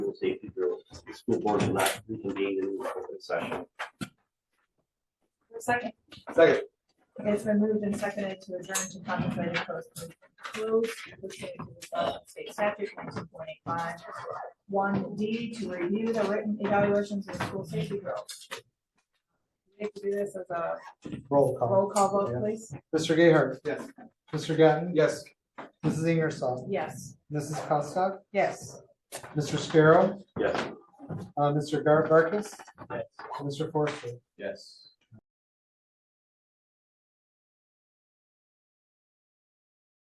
safety bureau, the school board will not reconvene in open session. Second, Second. it's been moved and seconded to adjourn to contemplate a closed meeting. Close, pursuant to the Wisconsin state statute nineteen point eight five, one D, to review the written evaluations of school safety girls. We have to do this as a Roll call. roll call vote, please. Mr. Gayheart. Yes. Mr. Gatton. Yes. Mrs. Ingersoll. Yes. Mrs. Costock. Yes. Mr. Scarrow. Yes. Uh, Mr. Gar- Barkis. Yes. Mr. Forster. Yes.